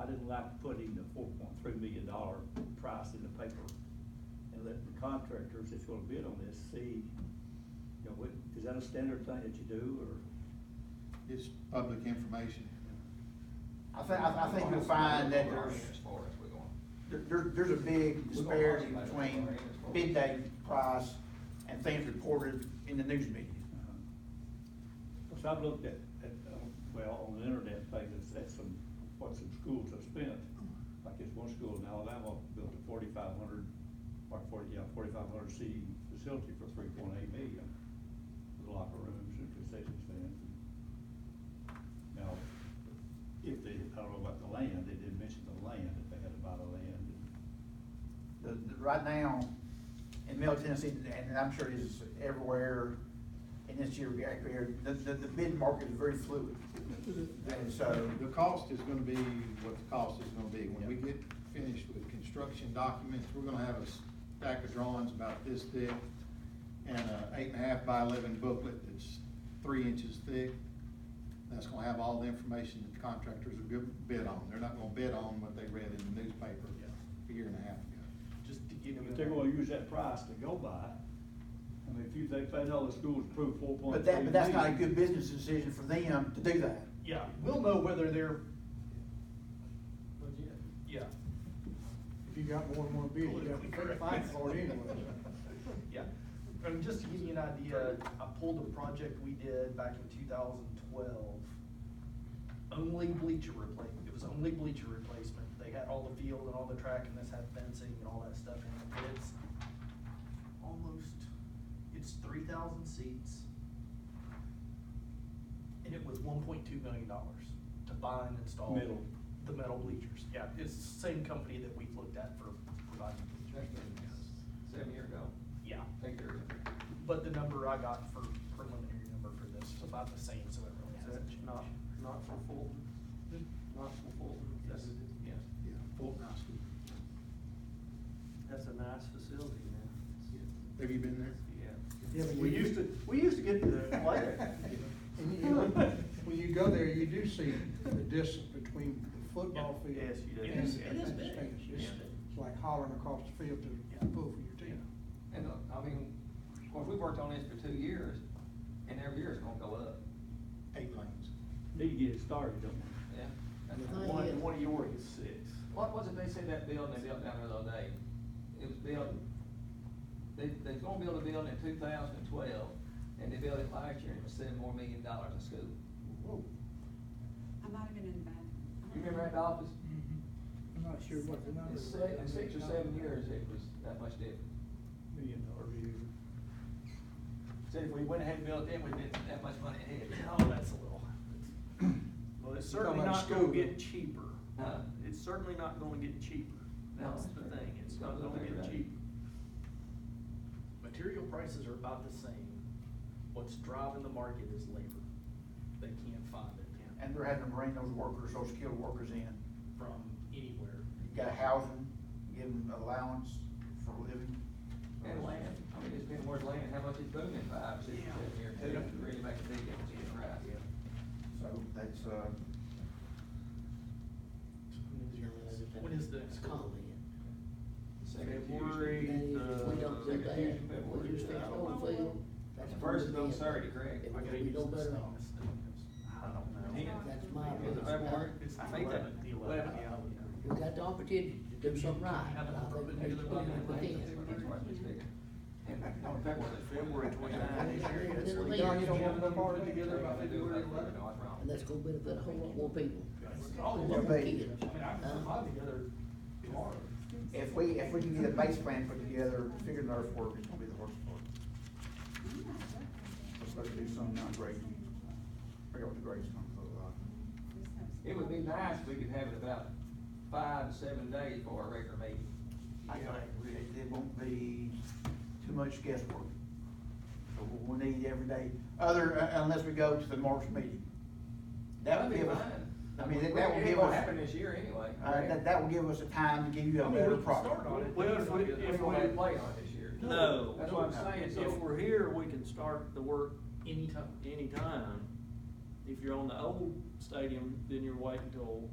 I didn't like putting the four point three million dollar price in the paper and let the contractors that's gonna bid on this see, you know, what, is that a standard thing that you do, or? It's public information. I think, I, I think you'll find that there's, As far as we're going. there, there- there's a big disparity between bid day price and things reported in the news media. Because I've looked at, at, uh, well, on the internet pages, at some, what some schools have spent, like this one school in Alabama built a forty-five hundred, or forty, yeah, forty-five hundred seating facility for three point eight million, with locker rooms and concession stands. Now, if they, I don't know about the land, they didn't mention the land, if they had to buy the land. The, the, right now, in Middle Tennessee, and I'm sure it is everywhere in this year, here, the, the, the bid market is very fluid. And so, The cost is gonna be what the cost is gonna be. When we get finished with construction documents, we're gonna have a stack of drawings about this thick and a eight and a half by eleven booklet that's three inches thick. That's gonna have all the information that the contractors are gonna bid on. They're not gonna bid on what they read in the newspaper a year and a half ago. Just to give you. If they're gonna use that price to go by, I mean, if you, they paid all the schools approved four point but three million. that, but that's not a good business decision for them to do that. Yeah, we'll know whether they're, But yeah, yeah, if you got more and more bids, you have to fight for it anyway. yeah. And just to give you an idea, I pulled a project we did back in two thousand twelve. Only bleacher replace, it was only bleacher replacement. They had all the field and all the track and this had fencing and all that stuff in it. It's almost, it's three thousand seats. And it was one point two million dollars to buy and install. Metal. The metal bleachers, yeah, it's the same company that we've looked at for providing bleachers. Seven year ago. Yeah, Take care of it. but the number I got for preliminary number for this was about the same, so it really Is hasn't changed. that not, not for Fulton? Not for Fulton? That's- Yes. Yeah. Yeah, Fulton High School. That's a nice facility, man. Have you been there? Yeah. Yeah, but We you- used to, we used to get to play it. And you- you- When you go there, you do see the distance between the football Yeah, field. yes, you do. and- It is- it and is the big. stands. Yeah. It's it's like hollering across the field to pull for your team. And, uh, I mean, well, we worked on this for two years, and every year it's gonna go up. Eight lanes. Need to get it started, don't we? Yeah. And the thing is- of yours is six. What was it, they said that building they built down there the other day, it was built, they, they was gonna build a building in two thousand and twelve, and they built it last year, and it was seven more million dollars in school. I might have been in the bathroom. You remember that, Dolphins? I'm not sure what the In six, in six or seven years, it was that much different. million dollar view. Said if we went ahead and built it, we'd been that much money ahead. Oh, that's a little. Well, it's You're certainly talking about not gonna school. get cheaper. Huh? It's certainly not gonna get cheaper. No, That's the that's right. thing, it's It's not not gonna gonna be get right. cheaper. Material prices are about the same. What's driving the market is labor. They can't find it And they're having to bring those workers, those skilled workers in. from anywhere. You gotta house them, give them allowance for a living. And land, I mean, it's been worth land, how much it's booming in five, six, or seven years, too, to really make a big difference in price. So that's, uh, When is the next Comment. Second February, Tuesday. the. We don't do that, Confusion, but we just we're- think on field. that's The first is on gonna be- Saturday, correct? If I gotta we use don't this better, thing. off. I don't know. Yeah. that's my. Is it February? It's the I think that- 11th. The 11th, yeah. We got the opportunity to do something right. Have a but I think perpendicular there's plenty line. of potential. That's why it's bigger. And, no, February. February 29th this year, it's like- Don, you don't have enough already together by February eleventh? No, it's wrong. And that's gonna benefit a whole lot more people. Uh, Oh, More yeah. kids. I mean, I can put mine together tomorrow. if we, if we can get a base plan put together, figure the earth work, it's gonna be the worst part. Let's let do something not great. Figure out what the grade's gonna look like. It would be nice if we could have it about five to seven days for our regular meeting. I think it- it won't be too much guesswork. So we'll need every day, other, uh, unless we go to the March meeting. That would give us, I mean, that- that would give It won't happen us, this year anyway. uh, that, that will give us a time to give you I a mean, we better can product. start on it. Well, if we, We're if gonna have to we, play on it this year. no. That's what I'm saying, If so, we're here, we can start the work Anytime. anytime. If you're on the old stadium, then you're waiting till